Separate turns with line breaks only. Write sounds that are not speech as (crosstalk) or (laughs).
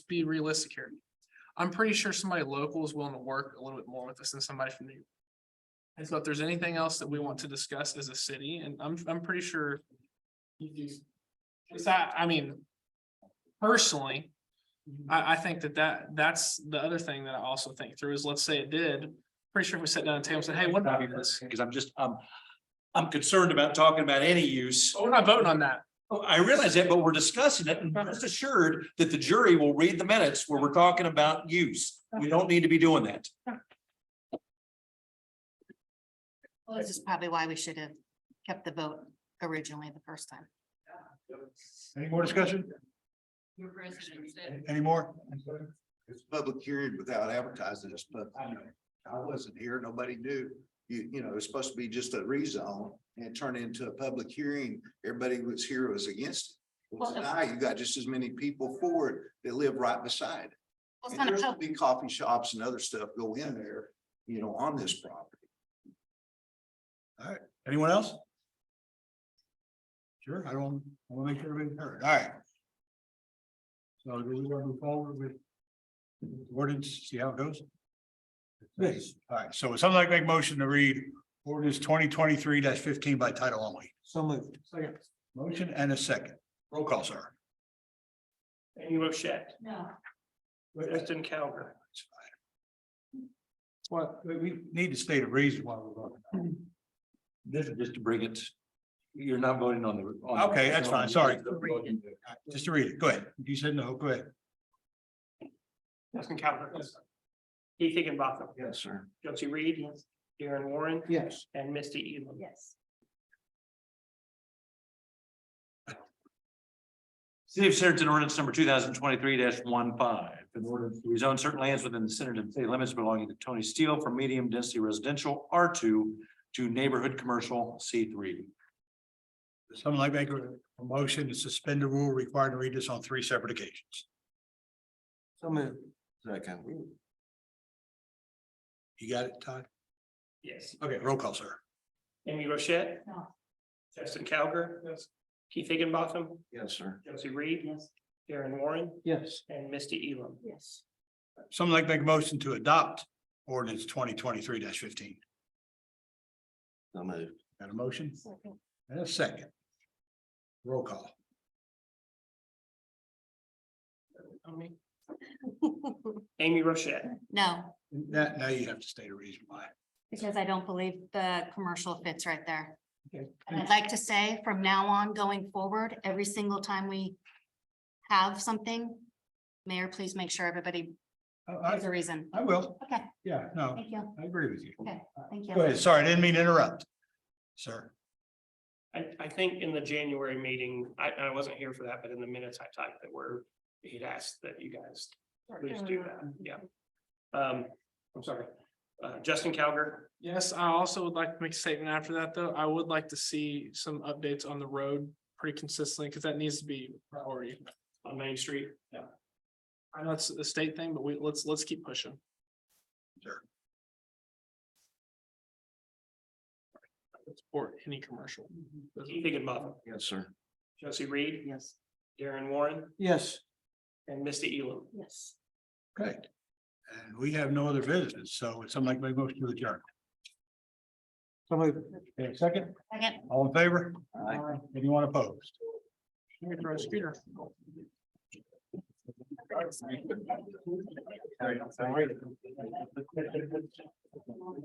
be realistic here. I'm pretty sure somebody local is willing to work a little bit more with us than somebody from New York. And so if there's anything else that we want to discuss as a city, and I'm, I'm pretty sure. Because I, I mean, personally, I, I think that that, that's the other thing that I also think through is, let's say it did. Pretty sure if we sat down at the table and said, hey, what about this?
Because I'm just, um, I'm concerned about talking about any use.
Oh, We're not voting on that.
Oh, I realize that, but we're discussing it and rest assured that the jury will read the minutes where we're talking about use. We don't need to be doing that.
Well, This is probably why we should have kept the vote originally the first time.
Any more discussion? Any more?
It's a public hearing without advertising, it's public. hearing. I wasn't here, nobody knew, you, you know, it's supposed to be just a rezone and it turned into a public hearing, everybody who was here was against. it. Well,
Well, if-
Now you got just as many people for it that live right beside.
Well, It's
And
not a
there's
pub,
gonna Be coffee shops and other stuff go in there, you know, on this property.
Anyone else? Sure, I don't, I want to make sure everybody's heard, all right. So do we want to move forward with ordinance, see how it goes? Please. All right, so would someone like to make a motion to read ordinance twenty twenty-three fifteen by title only?
So moved.
Motion and a second. Roll call, sir.
Amy Rochette,
no,
Justin Calgar,
Well, we- we need to state a reason why we're voting.
This is just to bring it. You're not voting on the. on the-
Okay, that's fine, sorry. Just to read it, go ahead. You said no, go ahead.
Justin Calgar. Keith Higginbotham,
Yes, sir.
Josie Reed, Darren Warren,
Yes.
and Misty Elam.
yes.
City of Centerton ordinance number two thousand twenty-three 15 in order to rezone certain lands within the Centerton city limits belonging to Tony Steele from medium density residential R two to neighborhood commercial C three.
Someone like make a a motion to suspend the rule required to read this on three separate occasions.
So moved.
Second.
You got it, Todd?
Yes.
Okay, roll call, sir.
Amy Rochette.
No.
Justin Calgar. Yes. Keith Higginbotham,
Yes, sir.
Josie Reed,
Yes.
Darren Warren,
Yes.
and Misty Elam.
Yes.
Someone like make a motion to adopt ordinance twenty twenty-three fifteen.
So moved.
Got a motion and a second. Roll call.
Amy Rochette,
(laughs) No,
Now, now you have to state a reason why.
because I don't believe the commercial fits right there.
Okay.
And I'd like to say from now on going forward, every single time we have something, mayor, please make sure everybody
Oh, I,
has a reason.
I will.
Okay,
Yeah, no,
thank you,
I agree with you.
thank you.
Go ahead. Sorry, I didn't mean to interrupt. Sir,
I, I think in the January meeting, I, I wasn't here for that, but in the minutes I typed that were, he'd asked that you guys please do that, yeah. Um, I'm sorry, uh, Justin Calgar,
Yes, I also would like to make a statement after that, though. I would like to see some updates on the road pretty consistently, because that needs to be a priority.
on Main Street. Yeah.
I know it's a state thing, but we, let's, let's keep pushing. Or any commercial.
Keith Higginbotham,
Yes, sir.
Josie Reed,
Mm-hmm. Yes.
Darren Warren,
Yes.
and Misty Elam.
Yes.
great. And we have no other visitors, so would someone like make a motion to adjourn? Somebody, second?
Second.
All in favor?
Aye.
Anyone opposed?
Here, throw a scooter.